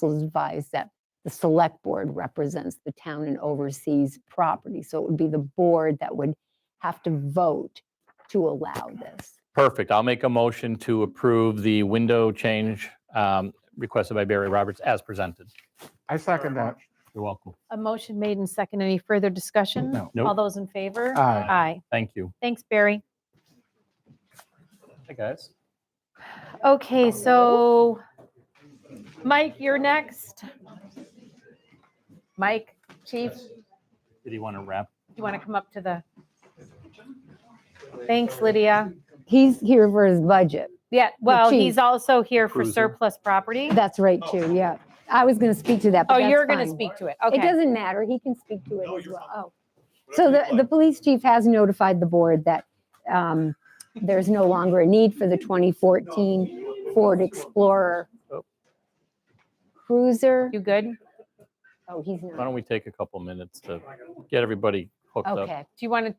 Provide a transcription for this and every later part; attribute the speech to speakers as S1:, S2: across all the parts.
S1: council is advised that the select board represents the town and oversees property. So it would be the board that would have to vote to allow this.
S2: Perfect. I'll make a motion to approve the window change um, requested by Barry Roberts as presented.
S3: I second that.
S2: You're welcome.
S4: A motion made and second. Any further discussion?
S3: No.
S2: Nope.
S4: All those in favor?
S3: Aye.
S4: Aye.
S2: Thank you.
S4: Thanks, Barry.
S2: Hey, guys.
S4: Okay, so Mike, you're next. Mike, chief,
S2: Did you want to wrap?
S4: you want to come up to the? Thanks, Lydia.
S1: He's here for his budget.
S4: Yeah, well,
S1: chief.
S4: he's also here for
S2: Cruiser.
S4: surplus property.
S1: That's right too, yeah. I was going to speak to that, but
S4: Oh,
S1: that's
S4: you're going to
S1: fine.
S4: speak to it.
S1: It
S4: Okay.
S1: doesn't matter. He can speak to it as
S5: you're
S1: well. Oh, So the, the police chief has notified the board that um, there's no longer a need for the 2014 Ford Explorer
S2: Oh.
S1: Cruiser.
S4: You good? Do
S1: Oh, he's
S2: Why
S1: not.
S2: don't we take a couple minutes to get everybody hooked up?
S1: Okay.
S4: you want to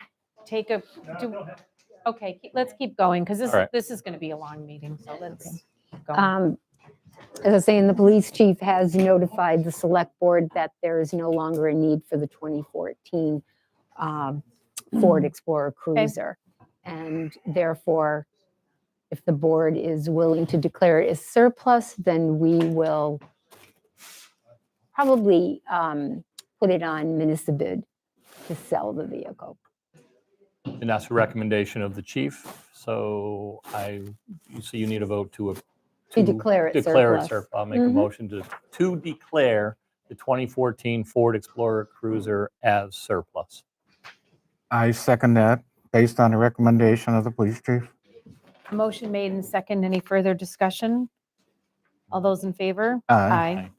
S4: take a, do, okay, keep- let's keep going because this,
S2: All right.
S4: this is going to be a long meeting, so let's go.
S1: Um, As I was saying, the police chief has notified the select board that there is no longer a need for the 2014 um, Ford Explorer Cruiser. And therefore, if the board is willing to declare it as surplus, then we will probably um, put it on municipal bid to sell the vehicle.
S2: And that's a recommendation of the chief. So I, so you need a vote to.
S1: To declare it
S2: Declare it
S1: surplus.
S2: surplus. I'll make a
S1: Mhm.
S2: motion to, to declare the 2014 Ford Explorer Cruiser as surplus.
S3: I second that, based on the recommendation of the police chief.
S4: Motion made and second. Any further discussion? All those in favor?
S3: Aye.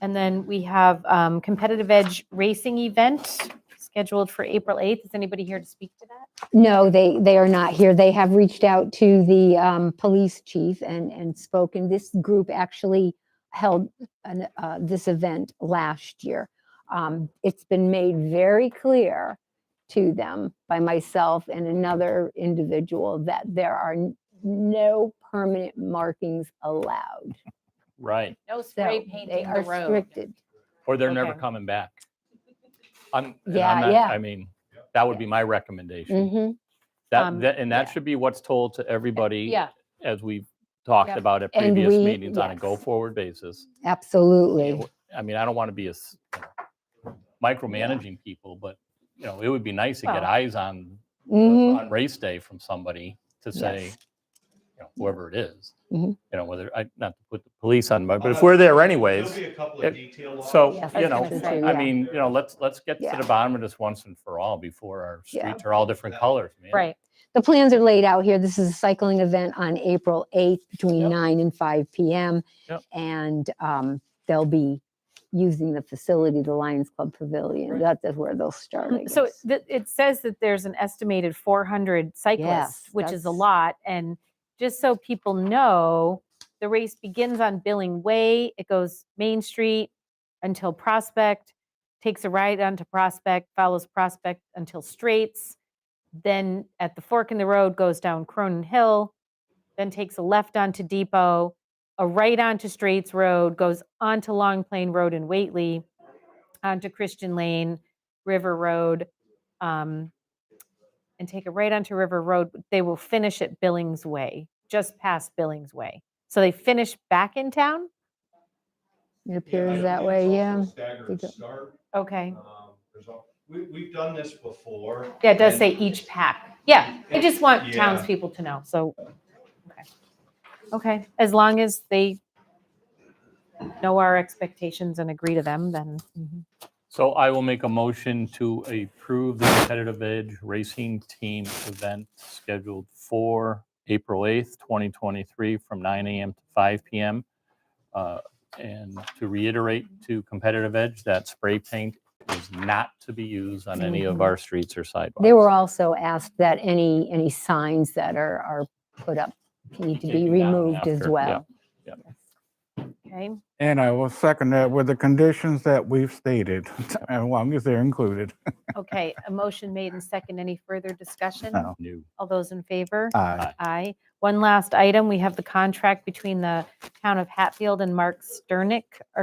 S4: And then we have um, Competitive Edge Racing Event scheduled for April 8th. Is anybody here to speak to that?
S1: No, they, they are not here. They have reached out to the um, police chief and, and spoken. This group actually held an, uh, this event last year. Um, It's been made very clear to them by myself and another individual that there are n- no permanent markings allowed.
S2: Right.
S4: No
S1: So
S4: spray
S1: They
S4: painting
S1: are
S4: the road.
S1: restricted.
S2: Or they're never
S4: Okay.
S2: coming back. I'm, and I'm
S1: Yeah,
S2: not-
S1: yeah.
S2: I mean, that would be my recommendation.
S1: Mhm.
S2: That,
S4: Um,
S2: that- and that
S1: yeah.
S2: should be what's told to everybody
S4: Yeah,
S2: as we've talked
S4: Yep.
S2: about at
S1: And
S2: previous
S1: we-
S2: meetings on a
S1: yes.
S2: go-forward basis.
S1: Absolutely.
S2: It- I mean, I don't want to be a s- micromanaging people, but, you know, it would be nice to get
S4: Well-
S2: eyes on,
S1: Mhm.
S2: on race day from somebody to say,
S1: Yes.
S2: you know, whoever it is,
S1: Mhm.
S2: you know, whether, I, not to put the police on, but but if we're there anyways.
S5: There'll be a couple
S2: it-
S5: of detail laws.
S2: So,
S1: Yes,
S2: you
S4: that's
S2: know,
S4: what I'm saying,
S2: I
S1: yeah.
S2: mean, you know, let's, let's get to
S1: Yeah.
S2: the bottom of this once and for all before our
S1: Yeah.
S2: streets are all different colors, man.
S4: right.
S1: The plans are laid out here. This is a cycling event on April 8th between
S2: Yep.
S1: 9 and 5 PM.
S2: Yep.
S1: And um, they'll be using the facility, the Lions Club Pavilion.
S2: Right.
S1: That is where they'll start. I
S4: So
S1: guess.
S4: th- it says that there's an estimated 400 cyclists,
S1: Yes,
S4: which is a
S1: that's-
S4: lot. And just so people know, the race begins on Billing Way. It goes Main Street until Prospect, takes a right onto Prospect, follows Prospect until Straits. Then at the fork in the road goes down Cronin Hill, then takes a left onto Depot, a right onto Straits Road, goes onto Long Plain Road and Waitley, onto Christian Lane, River Road, um, and take it right onto River Road. They will finish at Billings Way, just past Billings Way. So they finish back in town?
S1: It
S5: Yeah, I
S1: appears that
S5: believe
S1: way,
S5: it's also
S1: yeah. They
S5: Staggered
S1: go-
S5: start.
S4: Okay.
S5: um, there's al- We, we've done this before.
S4: Yeah, it does
S5: and-
S4: say each pack. Yeah, I just want
S5: Yeah.
S4: townspeople to know, so. okay. Okay, as long as they know our expectations and agree to them, then. mm-hmm,
S2: So I will make a motion to approve the competitive edge racing team event scheduled for April 8th, 2023, from 9 AM to 5 PM. Uh, And to reiterate to competitive edge, that spray paint is not to be used on any of
S1: Mhm.
S2: our streets or sidewalks.
S1: They were also asked that any, any signs that are, are put up need to
S2: Take
S1: be
S2: them down
S1: removed as
S2: after, yeah,
S1: well.
S2: yeah.
S4: Okay,
S3: And I will second that with the conditions that we've stated, as long as they're included.
S4: okay, a motion made and second. Any further discussion?
S3: No.
S2: New.
S4: All those in favor?
S3: Aye.
S4: Aye. One last item, we have the contract between the town of Hatfield and Mark Sternick,